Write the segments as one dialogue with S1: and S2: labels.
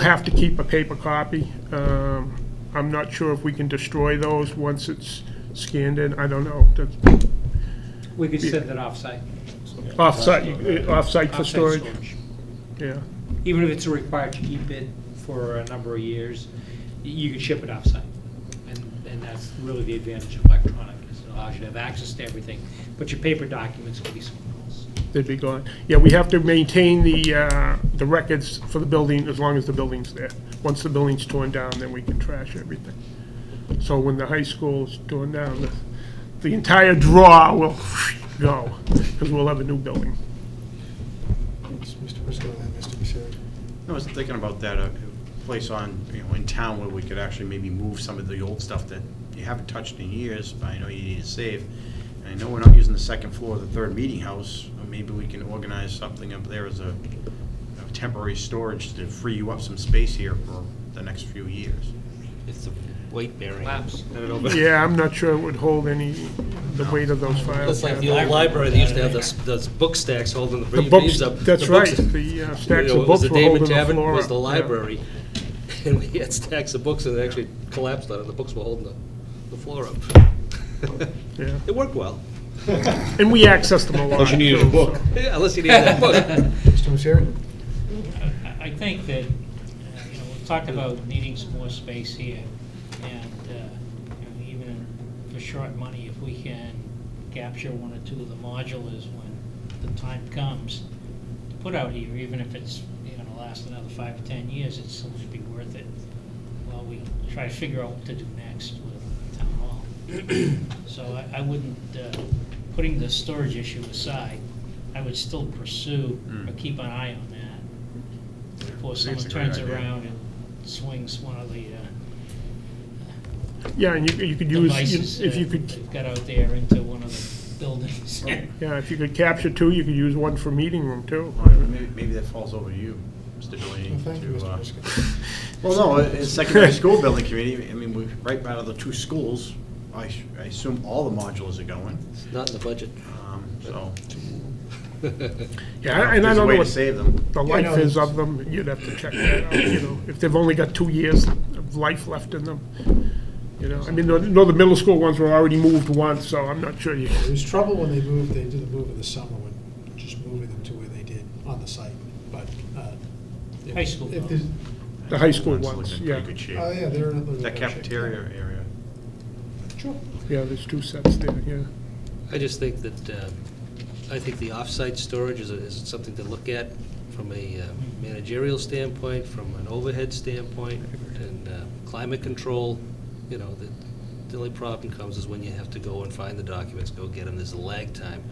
S1: have to keep a paper copy. Um, I'm not sure if we can destroy those once it's scanned in, I don't know. That's
S2: We could send it offsite.
S1: Off-site, eh, off-site for
S2: offsite
S1: storage, yeah.
S2: Even if it's required to keep it for a number of years, y- you could ship it offsite. And, and that's really the advantage of electronic, is it allows you to have access to everything, but your paper documents can be somewhere else.
S1: They'd be gone. Yeah, we have to maintain the, uh, the records for the building as long as the building's there. Once the building's torn down, then we can trash everything. So when the high school's torn down, the, the entire draw will go, because we'll have a new building.
S3: It's Mr. Briscoe and then Mr. Misery.
S4: I was thinking about that, a place on, you know, in town where we could actually maybe move some of the old stuff that you haven't touched in years, but I know you need to save. And I know we're not using the second floor of the third meeting house, but maybe we can organize something up there as a a temporary storage to free you up some space here for the next few years.
S5: It's a weight bearing.
S2: Labs.
S1: Yeah, I'm not sure it would hold any, the weight of those files.
S5: That's like the old library, they used to have those, those book stacks holding the
S1: The
S5: leaves
S1: books,
S5: up.
S1: that's
S5: The books-
S1: right, the uh,
S5: You
S1: stacks
S5: know,
S1: of
S5: it was
S1: books
S5: the
S1: were holding
S5: David
S1: the floor.
S5: Tavern was the
S1: up, yeah.
S5: library, and we had stacks of books, and it actually collapsed on it, the books were holding the, the floor up.
S1: Yeah,
S5: It worked well,
S1: and we accessed them a lot.
S6: Unless you needed a
S1: too, so-
S6: book.
S5: Yeah, unless you needed that book.
S3: Mr. Misery?
S7: I- I think that, uh, you know, we've talked about needing some more space here, and, uh, you know, even for short money, if we can capture one or two of the modulars when the time comes to put out here, even if it's, you know, gonna last another five or 10 years, it's still gonna be worth it while we try to figure out what to do next with Town Hall. So I, I wouldn't, uh, putting the storage issue aside, I would still pursue or keep an eye on that before
S4: Seems
S7: someone
S4: a
S7: turns
S4: great idea.
S7: around and swings one of the uh,
S1: Yeah, and you, you could use,
S7: devices uh,
S1: if you could
S7: they've got out there into one of the buildings.
S1: Yeah, if you could capture two, you could use one for meeting room, too.
S4: Well, Maybe maybe that falls over to you, Mr. Delaney.
S3: Well, Thank you,
S4: to, uh,
S3: Mr. Briscoe.
S4: Well, no, uh, it's secondary school building committee, I mean, we, right out of the two schools, I s- I assume all the modules are going,
S5: It's not in the budget.
S4: um, so.
S1: Yeah, and I don't know what
S4: There's a way to save them.
S1: the
S3: Yeah,
S1: life
S3: no,
S1: is
S3: it's-
S1: of them, you'd have to check that out, you know, if they've only got two years of life left in them. You know, I mean, I know the middle school ones were already moved once, so I'm not sure you,
S3: There was trouble when they moved, they did the move in the summer, when just moving them to where they did on the site, but. uh, if-
S7: High school,
S3: if
S7: though.
S3: there's-
S1: the high school
S4: One's
S1: ones,
S4: looking in
S1: yeah.
S4: pretty good shape.
S3: Oh, yeah, they're in a little.
S4: That cafeteria area.
S3: Sure.
S1: Yeah, there's two sets there, yeah.
S5: I just think that, uh, I think the off-site storage is, a- is something to look at from a uh, managerial standpoint, from an overhead standpoint, and uh, climate control, you know, the, the only problem comes is when you have to go and find the documents, go get them, there's a lag time.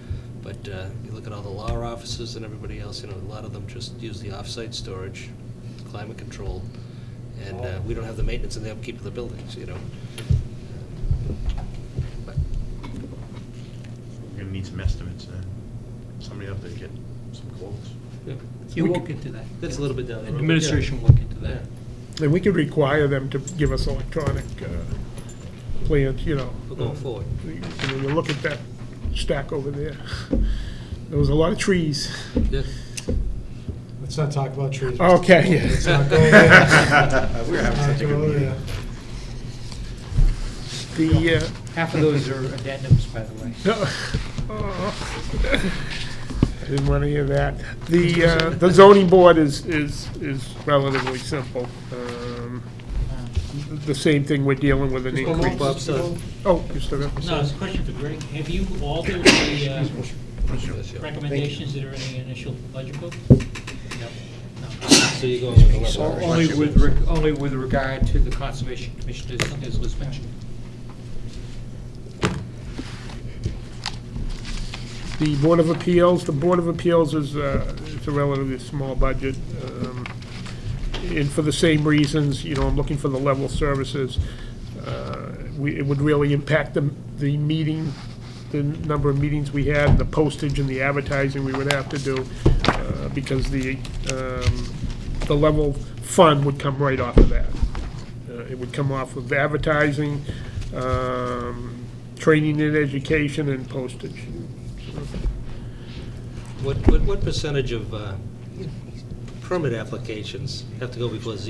S5: But uh, you look at all the law offices and everybody else, you know, a lot of them just use the off-site storage, climate control, and uh, we don't have the maintenance and the upkeep of the buildings, you know.
S4: We're gonna need some estimates then. Somebody up there get some quotes.
S2: You will get to that.
S5: That's a little bit down the road.
S2: Administration will get to that.
S1: And we could require them to give us electronic uh, plans, you know.
S5: We're going forward.
S1: When you look at that stack over there, there was a lot of trees.
S5: Yeah.
S3: Let's not talk about trees.
S1: Okay, yeah.
S3: Let's not go there.
S4: We're having
S3: Not
S4: such a
S3: go
S4: good meeting.
S3: there.
S1: The, uh,
S2: Half of those are addendums, by the way.
S1: I didn't want to hear that. The, uh, the zoning board is, is, is relatively simple. Um, The same thing we're dealing with an
S3: Just one more,
S1: increase.
S5: Bob's
S3: just one
S5: son.
S3: more.
S1: Oh, you still got,
S7: No, it's a question for Greg. Have you altered the uh, recommendations that are in the initial budget book?
S5: So you're going with the
S2: So
S5: level.
S2: Only with, reg- only with regard to the Conservation Commission, as- as was mentioned.
S1: the Board of Appeals, the Board of Appeals is, uh, it's a relatively small budget. um, And for the same reasons, you know, I'm looking for the level of services. Uh, We, it would really impact the, the meeting, the number of meetings we had, the postage and the advertising we would have to do, uh, because the, um, the level fund would come right off of that. Uh, It would come off of advertising, um, training and education, and postage.
S5: What, what, what percentage of uh, permit applications have to go before Z